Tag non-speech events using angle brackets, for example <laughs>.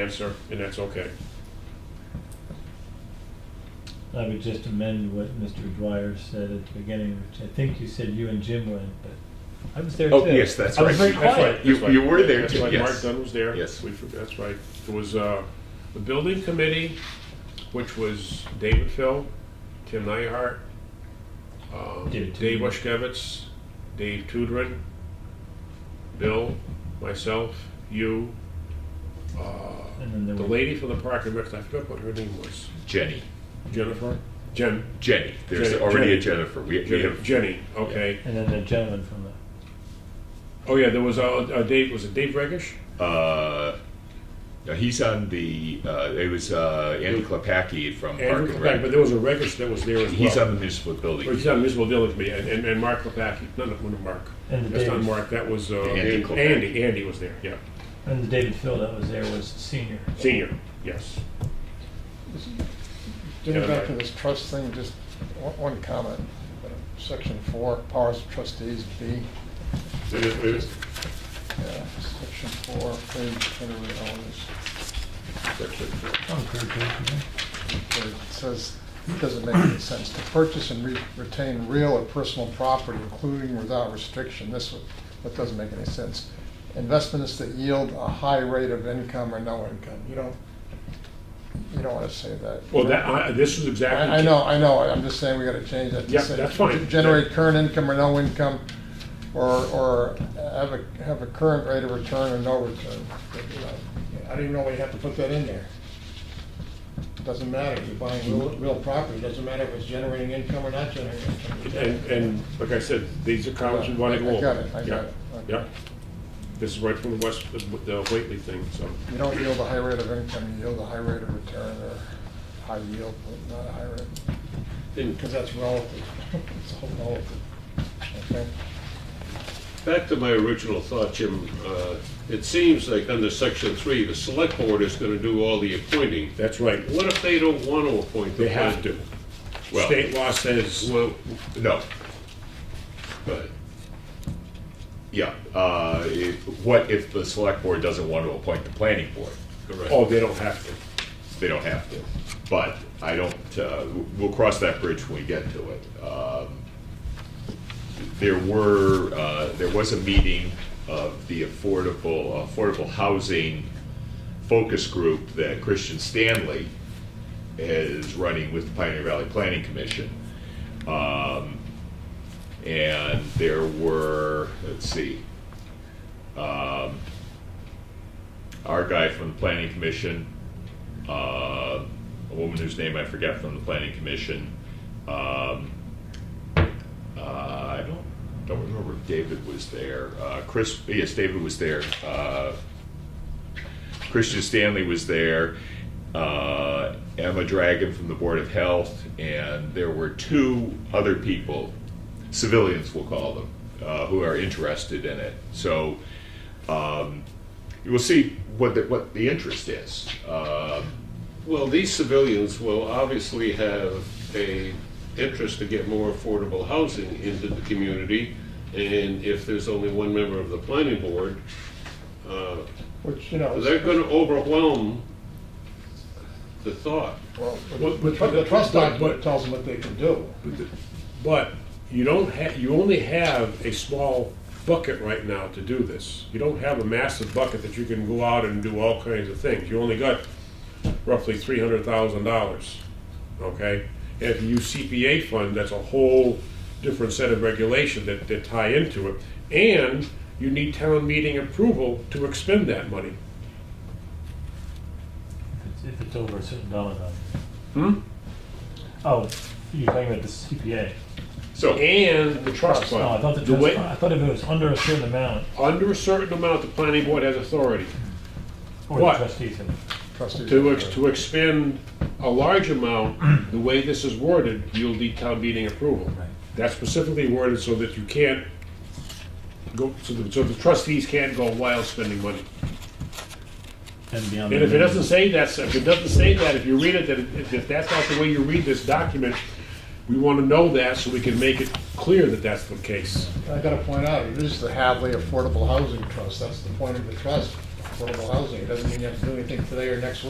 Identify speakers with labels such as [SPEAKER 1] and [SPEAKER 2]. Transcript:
[SPEAKER 1] answer, and that's okay.
[SPEAKER 2] I would just amend what Mr. Dwyer said at the beginning, which I think you said you and Jim went, but I was there too.
[SPEAKER 3] Oh, yes, that's
[SPEAKER 2] I was very
[SPEAKER 3] right.
[SPEAKER 1] That's
[SPEAKER 2] quiet.
[SPEAKER 1] right.
[SPEAKER 3] You-
[SPEAKER 1] that's right.
[SPEAKER 3] you were there
[SPEAKER 1] That's
[SPEAKER 3] too,
[SPEAKER 1] right.
[SPEAKER 3] yes.
[SPEAKER 1] Mark Dunn was there.
[SPEAKER 3] Yes.
[SPEAKER 1] We for- That's right. It was uh, the building committee, which was David Phil, Tim Nyhart, um,
[SPEAKER 2] Oh, David Tudor.
[SPEAKER 1] Dave Washkevitz, Dave Tudrin, Bill, myself, you,
[SPEAKER 2] And then there
[SPEAKER 1] the
[SPEAKER 2] were.
[SPEAKER 1] lady from the park and rec, I forgot what her name was.
[SPEAKER 3] Jenny.
[SPEAKER 1] Jennifer? Jen,
[SPEAKER 3] Jenny. There's
[SPEAKER 1] Jenny-
[SPEAKER 3] already
[SPEAKER 1] Jenny.
[SPEAKER 3] a Jennifer. We, we
[SPEAKER 1] Jenny,
[SPEAKER 3] have
[SPEAKER 1] Jenny, okay.
[SPEAKER 2] And then the gentleman from the,
[SPEAKER 1] Oh, yeah, there was a, a Dave, was it Dave Regish?
[SPEAKER 3] uh, now he's on the. Uh, it was uh, Andrew Klepacki from
[SPEAKER 1] Andrew
[SPEAKER 3] Park and
[SPEAKER 1] Kopak,
[SPEAKER 3] Rec.
[SPEAKER 1] but there was a Regish that was there as well.
[SPEAKER 3] He's on the municipal building.
[SPEAKER 1] Well, he's on Municipal Building Committee, and, and, and Mark Lepaki, no, no, no, Mark.
[SPEAKER 2] And
[SPEAKER 1] That's not
[SPEAKER 2] Dave.
[SPEAKER 1] Mark, that was, uh,
[SPEAKER 3] Andy Lepaki.
[SPEAKER 1] Andy, Andy was there, yeah.
[SPEAKER 2] and the David Phil that was there was senior.
[SPEAKER 1] Senior, yes.
[SPEAKER 4] Getting back to this trust thing, just one- one comment. Uh, Section four, powers of trustees, B, yeah, section four, page, whatever the hell it is. It says, it doesn't make any sense, to purchase and re- retain real or personal property, including without restriction, this, one- that doesn't make any sense. Investments that yield a high rate of income or no income, you don't, you don't wanna say that.
[SPEAKER 1] Well, that, I, this is exactly.
[SPEAKER 4] I, I know, I know, I'm just saying we gotta change that. to
[SPEAKER 1] Yeah,
[SPEAKER 4] say
[SPEAKER 1] that's fine.
[SPEAKER 4] Generate current income or no income, or, or have a, have a current rate of return or no return. You know, I don't even know why you have to put that in there. Doesn't matter, you're buying real, real property, doesn't matter if it's generating income or not generating income.
[SPEAKER 1] And, and, like I said, these are comments we
[SPEAKER 4] Yeah,
[SPEAKER 1] want to
[SPEAKER 4] I- I
[SPEAKER 1] go over.
[SPEAKER 4] got it, I got
[SPEAKER 1] Yeah,
[SPEAKER 4] it, okay.
[SPEAKER 1] Yeah. This is right from the West, the the Whately thing, so.
[SPEAKER 4] You don't yield a high rate of income, you yield a high rate of return, or high yield, but not a high rate,
[SPEAKER 5] And
[SPEAKER 4] because that's relative. <laughs> It's all relative, okay?
[SPEAKER 5] back to my original thought, Jim, uh, it seems like under section three, the select board is gonna do all the appointing.
[SPEAKER 1] That's right.
[SPEAKER 5] What if they don't want to appoint the
[SPEAKER 1] They have
[SPEAKER 5] plan?
[SPEAKER 1] to.
[SPEAKER 3] Well-
[SPEAKER 1] State law says,
[SPEAKER 5] Well,
[SPEAKER 3] No.
[SPEAKER 5] but
[SPEAKER 3] Yeah. Uh, if, what if the select board doesn't want to appoint the planning board?
[SPEAKER 1] oh,
[SPEAKER 5] correct.
[SPEAKER 1] they don't have to.
[SPEAKER 3] They don't have to. But I don't. Uh, we'll cross that bridge when we get to it. Um, there were uh, there was a meeting of the affordable affordable housing focus group that Christian Stanley is running with the Pioneer Valley Planning Commission. Um, and there were, let's see, um, our guy from the Planning Commission, uh, a woman whose name I forget from the Planning Commission, um, uh, I don't, don't remember if David was there, uh, Chris, yes, David was there, uh, Christian Stanley was there, uh, Emma Dragon from the Board of Health, and there were two other people, civilians we'll call them, uh, who are interested in it. So um, you will see what the, what the interest is. Uh,
[SPEAKER 5] Well, these civilians will obviously have a interest to get more affordable housing into the community. And if there's only one member of the planning board, uh,
[SPEAKER 4] Which, you know. is-
[SPEAKER 5] they're gonna overwhelm the thought.
[SPEAKER 4] Well,
[SPEAKER 1] But-
[SPEAKER 4] the
[SPEAKER 1] but-
[SPEAKER 4] tru- the trust
[SPEAKER 1] but-
[SPEAKER 4] document
[SPEAKER 1] but-
[SPEAKER 4] tells them what they can do.
[SPEAKER 1] But you don't have, you only have a small bucket right now to do this. You don't have a massive bucket that you can go out and do all kinds of things. You only got roughly three hundred thousand dollars, okay? And if you use CPA fund, that's a whole different set of regulation that, that tie into it. And you need town meeting approval to expend that money.
[SPEAKER 2] If it's- If it's over a certain dollar value.
[SPEAKER 1] Hmm?
[SPEAKER 2] Oh, you're talking about the CPA.
[SPEAKER 3] so
[SPEAKER 1] And the trust fund.
[SPEAKER 2] Oh, I thought the
[SPEAKER 1] The way-
[SPEAKER 2] trust, I thought if it was under a certain amount,
[SPEAKER 1] Under a certain amount, the planning board has authority.
[SPEAKER 2] or the
[SPEAKER 1] What?
[SPEAKER 2] trustees have.
[SPEAKER 4] Trustees.
[SPEAKER 1] To, ex- to expend a large amount, the way this is worded, you'll need town meeting approval.
[SPEAKER 2] Right.
[SPEAKER 1] That's specifically worded so that you can't go, so the, so the trustees can't go wild spending money.
[SPEAKER 2] And beyond.
[SPEAKER 1] And if it
[SPEAKER 2] that,
[SPEAKER 1] doesn't say that, if it doesn't say that, if you read it, then if- if that's not the way you read this document, we want to know that so we can make it clear that that's the case.
[SPEAKER 4] I gotta point out, it is the Hadley Affordable Housing Trust, that's the point of the trust. affordable housing. It doesn't mean you have to do anything today or next week.